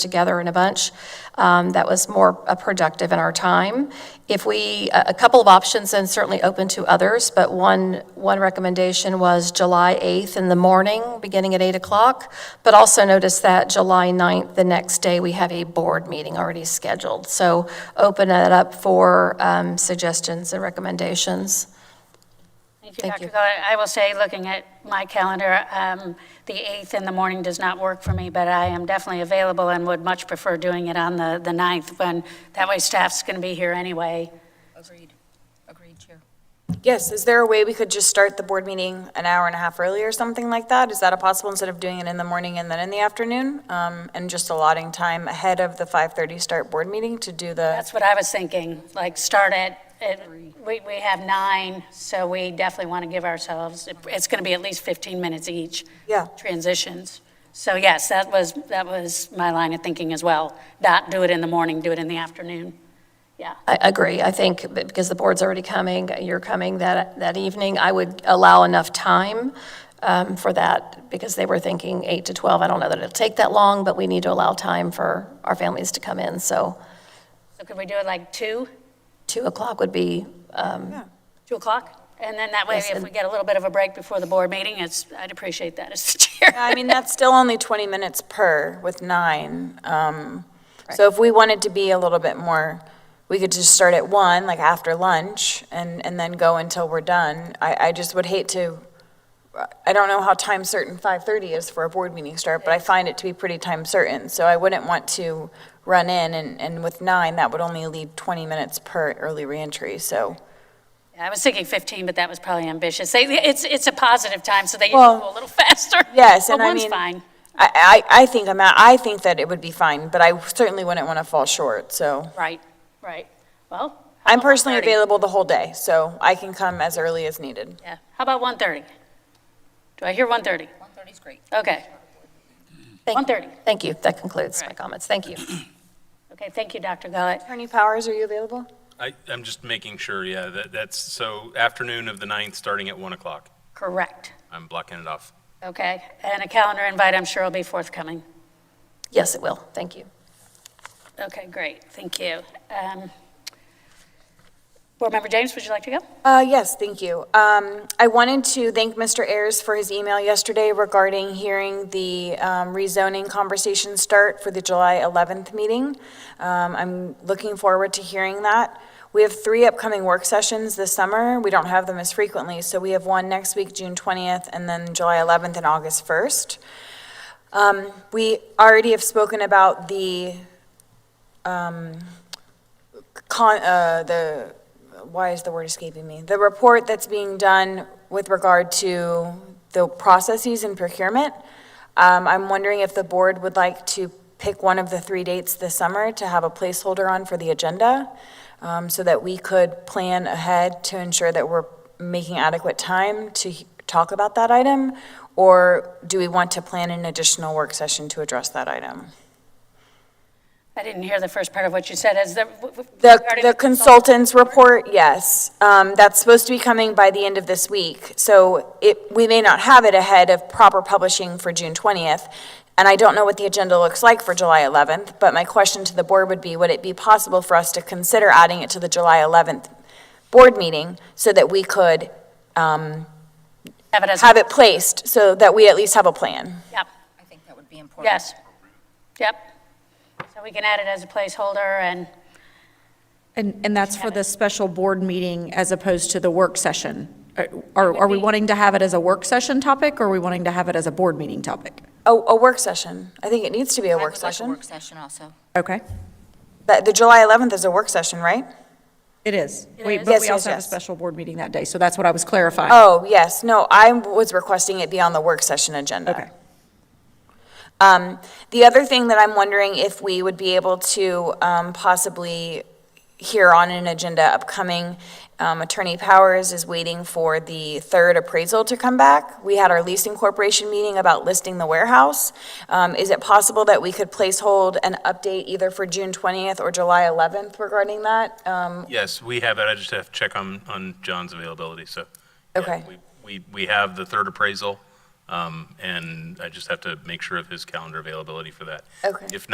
together in a bunch, um, that was more uh, productive in our time. If we, uh, a a couple of options, and certainly open to others, but one, one recommendation was July 8th in the morning, beginning at 8 o'clock, but also notice that July 9th, the next day, we have a board meeting already scheduled. So open it up for um, suggestions and recommendations. Thank you, Thank Dr. you. Gullar. I will say, looking at my calendar, um, the 8th in the morning does not work for me, but I am definitely available and would much prefer doing it on the the 9th, when that way staff's going to be here anyway. Agreed. Agreed, Chair. Yes, is there a way we could just start the board meeting an hour and a half early or something like that? Is that a possible, instead of doing it in the morning and then in the afternoon? Um, and just allotting time ahead of the 5:30 start board meeting to do the, That's what I was thinking, like, start at, at- we we have nine, so we definitely want to give ourselves, it's going to be at least 15 minutes each. Yeah. Transitions. So yes, that was, that was my line of thinking as well. Not do it in the morning, do it in the afternoon. Yeah. I agree. I think b- because the board's already coming, you're coming that, that evening, I would allow enough time um, for that because they were thinking 8 to 12. I don't know that it'll take that long, but we need to allow time for our families to come in. So So could we do it like 2? 2 o'clock would be, 2 o'clock? And then that way, Yes, if and- we get a little bit of a break before the board meeting, it's, I'd appreciate that as the chair. I mean, that's still only 20 minutes per with nine. Um, so if we wanted to be a little bit more, we could just start at one, like after lunch, and, and then go until we're done. I, I just would hate to, I don't know how time certain 5:30 is for a board meeting start, but I find it to be pretty time certain. So I wouldn't want to run in, and, and with nine, that would only leave 20 minutes per early reentry, so. I was thinking 15, but that was probably ambitious. They- It's, it's a positive time, so they usually Well, go a little faster. Yes, But and I one's mean. fine. I, I, I think I'm, at- I think that it would be fine, but I certainly wouldn't want to fall short, so. Right, right. Well. how I'm about personally 1:30? available the whole day, so I can come as early as needed. Yeah, how about 1:30? Do I hear 1:30? 1:30 is great. Okay, thank- 1:30. Thank you. That concludes my Right. comments. Thank you. Okay, thank you, Dr. Gullett. Attorney Powers, are you available? I, I'm just making sure, yeah, that, that's, so afternoon of the 9th, starting at 1 o'clock. Correct. I'm blocking it off. Okay, and a calendar invite, I'm sure will be forthcoming. Yes, it will. Thank you. Okay, great, thank you. Um, Board Member James, would you like to go? Uh, yes, thank you. Um, I wanted to thank Mr. Ayers for his email yesterday regarding hearing the, um, rezoning conversation start for the July 11th meeting. Um, I'm looking forward to hearing that. We have three upcoming work sessions this summer. We don't have them as frequently, so we have one next week, June 20th, and then July 11th and August 1st. Um, we already have spoken about the, con, uh, the, why is the word escaping me? The report that's being done with regard to the processes in procurement. Um, I'm wondering if the board would like to pick one of the three dates this summer to have a placeholder on for the agenda, um, so that we could plan ahead to ensure that we're making adequate time to he- talk about that item? Or do we want to plan an additional work session to address that item? I didn't hear the first part of what you said, is the... w- w- The, regarding the consultant's report, yes. Um, that's supposed to be coming by the end of this week. So it, we may not have it ahead of proper publishing for June twentieth. And I don't know what the agenda looks like for July eleventh, but my question to the board would be, would it be possible for us to consider adding it to the July eleventh board meeting so that we could, um, Have it as, have it placed so that we at least have a plan? yep, I think that would be important. yes, yep. So we can add it as a placeholder, and, And, and that's for the special board meeting as opposed to the work session? Uh, Are, are we wanting to have it as a work session topic, or are we wanting to have it as a board meeting topic? A, a work session. I think it needs to be a work I would session. like a work session also. Okay, But the July eleventh is a work session, right? it is. We- is. But Yes, we yes, also have a yes. special board meeting that day, so that's what I was clarifying. Oh, yes, no, I was requesting it be on the work session agenda. Okay. Um, The other thing that I'm wondering if we would be able to um, possibly hear on an agenda upcoming, um, Attorney Powers is waiting for the third appraisal to come back. We had our leasing corporation meeting about listing the warehouse. Um, Is it possible that we could place hold an update either for June 20th or July 11th regarding that? Um, Yes, we have it. I just have to check on, on John's availability, so. yeah, Okay. we- We, we have the third appraisal, um, and I just have to make sure of his calendar availability for that. Okay. If